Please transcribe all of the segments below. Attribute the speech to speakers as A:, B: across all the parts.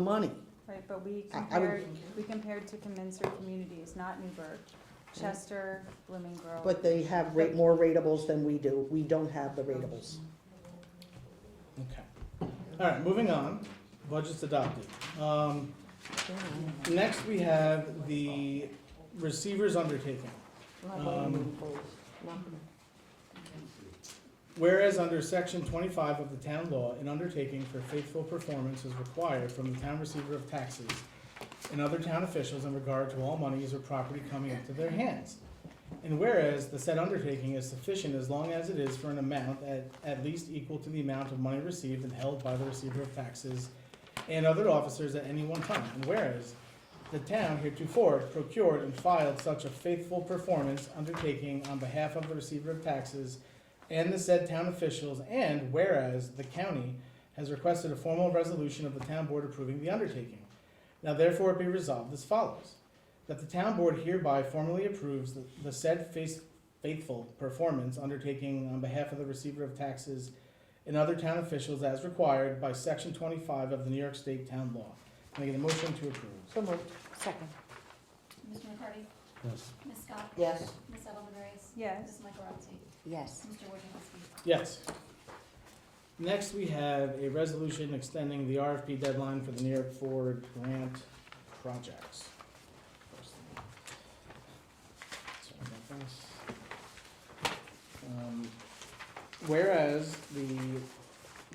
A: money.
B: Right, but we
A: I- I would-
B: compared, we compared to commensurate communities, not Newburgh, Chester, Blooming Grove.
A: But they have rate, more ratables than we do. We don't have the ratables.
C: Okay. All right, moving on. Budget's adopted. Um, next we have the receiver's undertaking. Um, Whereas under section twenty-five of the town law, an undertaking for faithful performance is required from the town receiver of taxes and other town officials in regard to all monies or property coming into their hands. And whereas the said undertaking is sufficient as long as it is for an amount at, at least equal to the amount of money received and held by the receiver of taxes and other officers at any one time. And whereas the town heretofore procured and filed such a faithful performance undertaking on behalf of the receiver of taxes and the said town officials, and whereas the county has requested a formal resolution of the town board approving the undertaking. Now therefore be resolved as follows, that the town board hereby formally approves the, the said faith- faithful performance undertaking on behalf of the receiver of taxes and other town officials as required by section twenty-five of the New York State Town Law. Can I get a motion to approve?
A: So moved.
D: Second.
E: Mr. McCarty?
C: Yes.
E: Ms. Scott?
A: Yes.
E: Ms. Edelman Reyes?
B: Yes,
E: Ms. Michaelozzi?
D: Yes.
E: Mr. Wojciechowski?
C: Yes. Next, we have a resolution extending the RFP deadline for the New York Ford grant projects. Sorry about this. Um, Whereas the,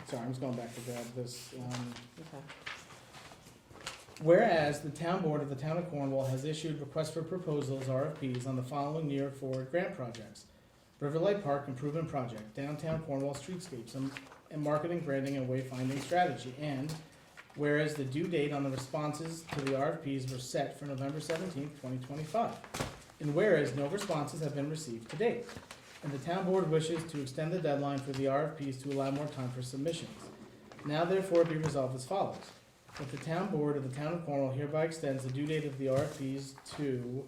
C: sorry, I'm just going back to grab this, um, Whereas the town board of the town of Cornwall has issued requests for proposals, RFPs, on the following New York Forward grant projects. Riverlight Park Improvement Project, Downtown Cornwall Streetscapes, and, and Marketing, Branding, and Wayfinding Strategy. And whereas the due date on the responses to the RFPs were set for November seventeenth, twenty twenty-five. And whereas no responses have been received to date. And the town board wishes to extend the deadline for the RFPs to allow more time for submissions. Now therefore be resolved as follows. That the town board of the town of Cornwall hereby extends the due date of the RFPs to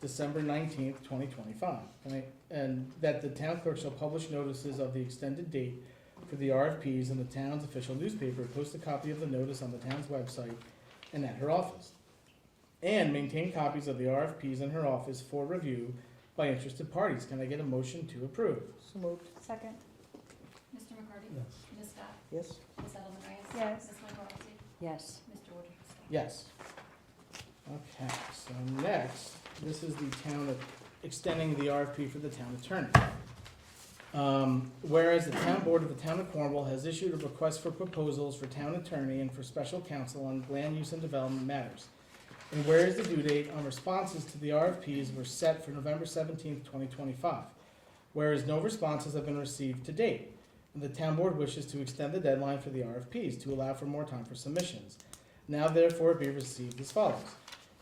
C: December nineteenth, twenty twenty-five. And that the town clerk shall publish notices of the extended date for the RFPs in the town's official newspaper, post a copy of the notice on the town's website and at her office. And maintain copies of the RFPs in her office for review by interested parties. Can I get a motion to approve?
A: So moved.
B: second,
E: Mr. McCarty? Ms. Scott?
A: Yes.
E: Ms. Edelman Reyes?
B: Yes.
E: Ms. Michaelozzi?
D: Yes.
E: Mr. Wojciechowski?
C: Yes. Okay, so next, this is the town of, extending the RFP for the town attorney. Um, whereas the town board of the town of Cornwall has issued a request for proposals for town attorney and for special counsel on land use and development matters. And whereas the due date on responses to the RFPs were set for November seventeenth, twenty twenty-five. Whereas no responses have been received to date, and the town board wishes to extend the deadline for the RFPs to allow for more time for submissions. Now therefore be received as follows.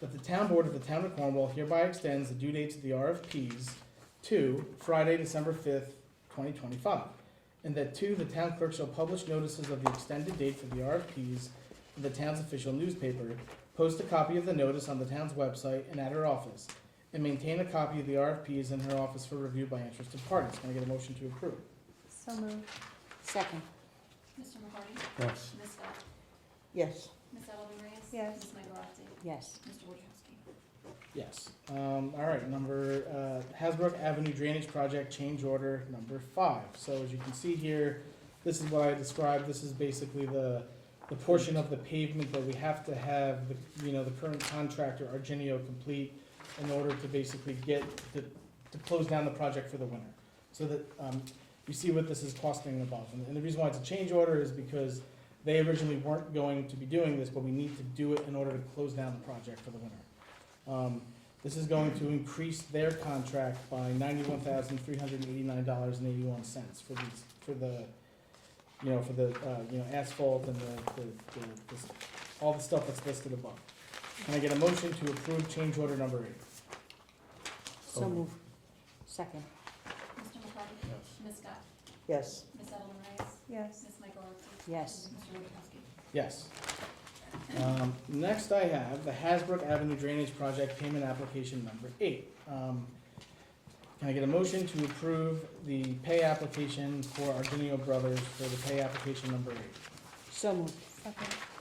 C: That the town board of the town of Cornwall hereby extends the due dates of the RFPs to Friday, December fifth, twenty twenty-five. And that two, the town clerk shall publish notices of the extended date for the RFPs in the town's official newspaper, post a copy of the notice on the town's website and at her office, and maintain a copy of the RFPs in her office for review by interested parties. Can I get a motion to approve?
B: so moved,
D: Second.
E: Mr. McCarty?
C: Yes.
E: Ms. Scott?
A: Yes.
E: Ms. Edelman Reyes?
B: Yes.
E: Ms. Michaelozzi?
D: Yes.
E: Mr. Wojciechowski?
C: Yes. Um, all right, number, uh, Hasbrook Avenue Drainage Project Change Order Number Five. So as you can see here, this is what I described. This is basically the, the portion of the pavement that we have to have, the you know, the current contractor, Argenio, complete in order to basically get, the- to close down the project for the winter. So that, um, you see what this is costing above. And and the reason why it's a change order is because they originally weren't going to be doing this, but we need to do it in order to close down the project for the winter. Um, this is going to increase their contract by ninety-one thousand, three hundred and eighty-nine dollars and eighty-one cents for these, for the, you know, for the, uh, you know, asphalt and the, the, the, this, all the stuff that's listed above. Can I get a motion to approve change order number eight?
D: So move. Second.
E: Mr. McCarty? Ms. Scott?
A: Yes.
E: Ms. Edelman Reyes?
B: yes,
E: Ms. Michaelozzi?
D: Yes.
E: Mr. Wojciechowski?
C: Yes. Um, next I have the Hasbrook Avenue Drainage Project Payment Application Number Eight. Um, Can I get a motion to approve the pay application for Argenio Brothers for the pay application number eight?
D: So moved.
B: second,